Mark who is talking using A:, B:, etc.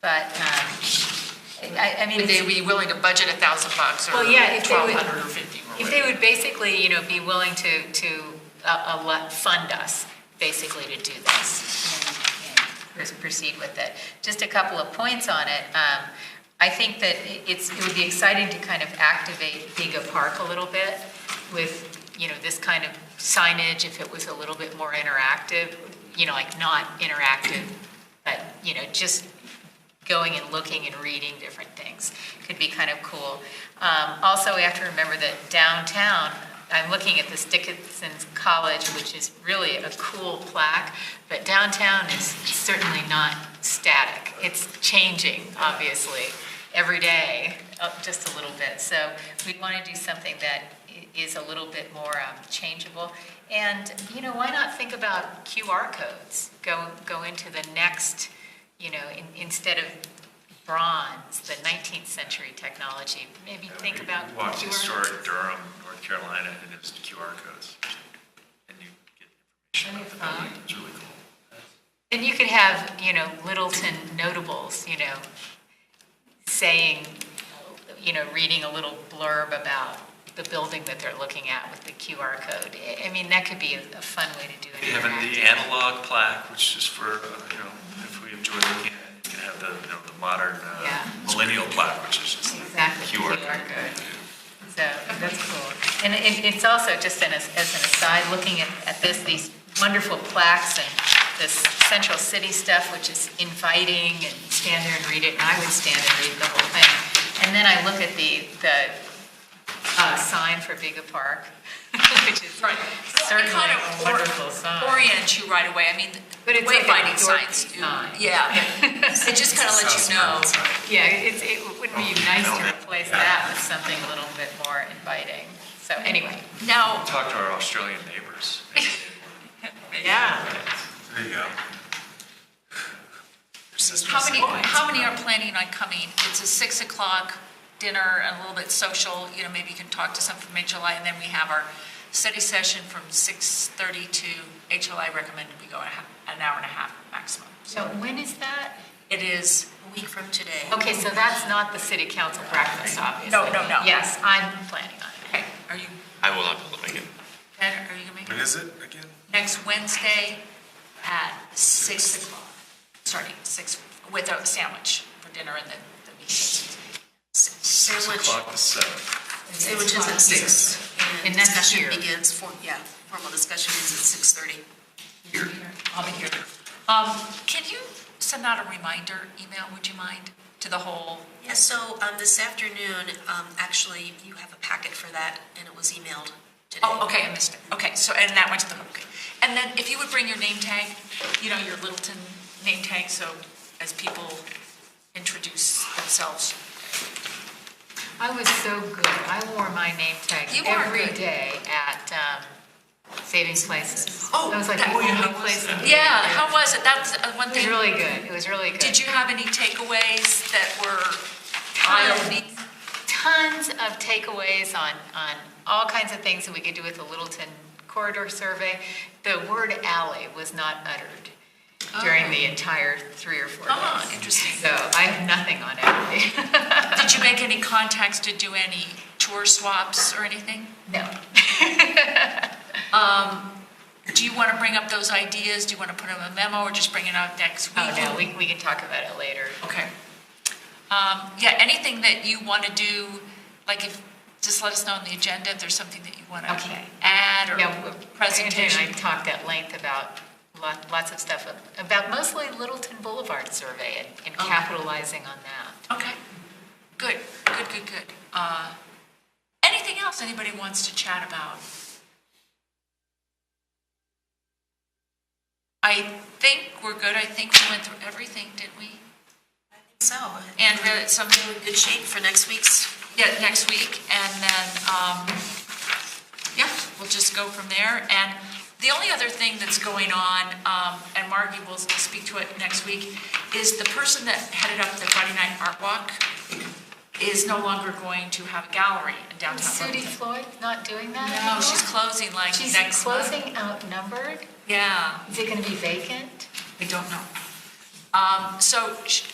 A: But, um, I, I mean,
B: Would
A: it's-
B: they be willing to budget a thousand bucks or
A: Well, yeah, if they would-
B: twelve hundred or fifty? or
A: if they
B: whatever?
A: would basically, you know, be willing to, to, uh, uh, let- fund us, basically to do this and- and pr- proceed with it. Just a couple of points on it. Um, I think that it- it's, it would be exciting to kind of activate Giga Park a little bit with, you know, this kind of signage, if it was a little bit more interactive, you know, like not interactive, but, you know, just going and looking and reading different things could be kind of cool. Um, also, we have to remember that downtown, I'm looking at this Dickinson College, which is really a cool plaque, but downtown is certainly not static. It's changing, obviously, every day, up just a little bit. So we want to do something that i- is a little bit more um, changeable. And, you know, why not think about QR codes? Go, go into the next, you know, in, instead of bronze, the 19th century technology, maybe think
C: We-
A: about
C: We walked
A: QR.
C: to store in Durham, North Carolina, and it was QR codes. And you get
A: And
C: information
A: it's
C: about the building.
A: fine.
C: It's really cool.
A: Then you could have, you know, Littleton notables, you know, saying, you know, reading a little blurb about the building that they're looking at with the QR code. I- I mean, that could be a a fun way to do it.
C: You have the analog plaque, which is for, uh, you know, if we enjoy looking at it, you can have the, you know, the modern uh,
A: Yeah.
C: millennial plaque, which is just the
A: Exactly,
C: QR.
A: QR code. So that's cool. And it, it's also, just an- as, as an aside, looking at, at this, these wonderful plaques and this central city stuff, which is inviting and stand there and read it, and I would stand and read the whole thing. And then I look at the, the uh, sign for Biga Park, which is
D: Right. So it
A: certainly
D: kind
A: a
D: of or-
A: wonderful sign.
D: Orient you right away. I mean,
A: But it's like a
D: wayfinding
A: dorky
D: signs. do-
A: sign.
D: Yeah. It just kind of lets you know.
A: Yeah, it's, it wouldn't be nice to replace that with something a little bit more inviting. So anyway.
D: Now,
C: Talk to our Australian neighbors.
A: Yeah.
C: There you go.
D: how many, how many are planning on coming? It's a six o'clock dinner, and a little bit social, you know, maybe you can talk to some from HLI, and then we have our study session from six thirty to HLI recommended we go a half- an hour and a half maximum.
A: So when is that?
D: It is a week from today.
A: Okay, so that's not the city council breakfast, obviously.
D: No, no, no.
A: Yes, I'm planning on it.
D: Okay, are you,
E: I will not be able to make it.
D: Ben, are you gonna make it?
F: is it again?
D: next Wednesday at 6 o'clock, starting 6, with a sandwich for dinner and then the meeting.
G: Sandwich,
C: Clock to seven.
G: sandwich is at six.
A: And that's
G: discussion
A: here.
G: Begins, for yeah, formal discussion is at six thirty.
D: I'll be here. Um, Can you send out a reminder email, would you mind, to the whole?
G: Yeah, so, um, this afternoon, um, actually, you have a packet for that, and it was emailed today.
D: Oh, okay, I missed it. Okay, so, and that went to the, okay. And then if you would bring your name tag, you know, your Littleton name tag, so as people introduce themselves.
A: I was so good. I wore my name tag
D: You are
A: every
D: good.
A: day at um, Savings Places.
D: Oh,
A: That was like
D: that-
A: the
D: oh, yeah,
A: only
D: how was
A: place. in the-
D: Yeah, how was it? That's uh, one
A: It was
D: thing.
A: really good. It was really good.
D: Did you have any takeaways that were eye-opening?
A: tons of takeaways on, on all kinds of things that we could do with the Littleton corridor survey. The word alley was not uttered during the entire three or four
D: Oh. Ah,
A: days.
D: interesting.
A: So I have nothing on alley.
D: Did you make any contacts to do any tour swaps or anything?
A: No.
D: Do you want to bring up those ideas? Do you want to put them in a memo or just bring it out next week?
A: Oh, no, we, we can talk about it later.
D: Okay. Um, Yeah, anything that you want to do, like if, just let us know on the agenda if there's something that you want to
A: Okay.
D: add
A: Yeah, w-
D: or
A: Andrea and
D: presentation.
A: I talked at length about lot- lots of stuff, about mostly Littleton Boulevard survey and- and
D: Okay.
A: capitalizing on that.
D: Okay, good, good, good, good. Uh, Anything else anybody wants to chat about? I think we're good. I think we went through everything, didn't we?
G: So,
D: Andrea, somebody
G: in good shape for next week's
D: Yeah, next week, and then, um, yeah, we'll just go from there. And the only other thing that's going on, um, and Margie will speak to it next week, is the person that headed up the Friday Night Art Walk is no longer going to have a gallery in downtown
A: Sudie
D: Littleton.
A: Floyd not doing that
D: No,
A: anymore?
D: she's closing like
A: She's
D: next month.
A: closing outnumbered?
D: Yeah,
A: Is it going to be vacant?
D: I don't know. Um, So sh-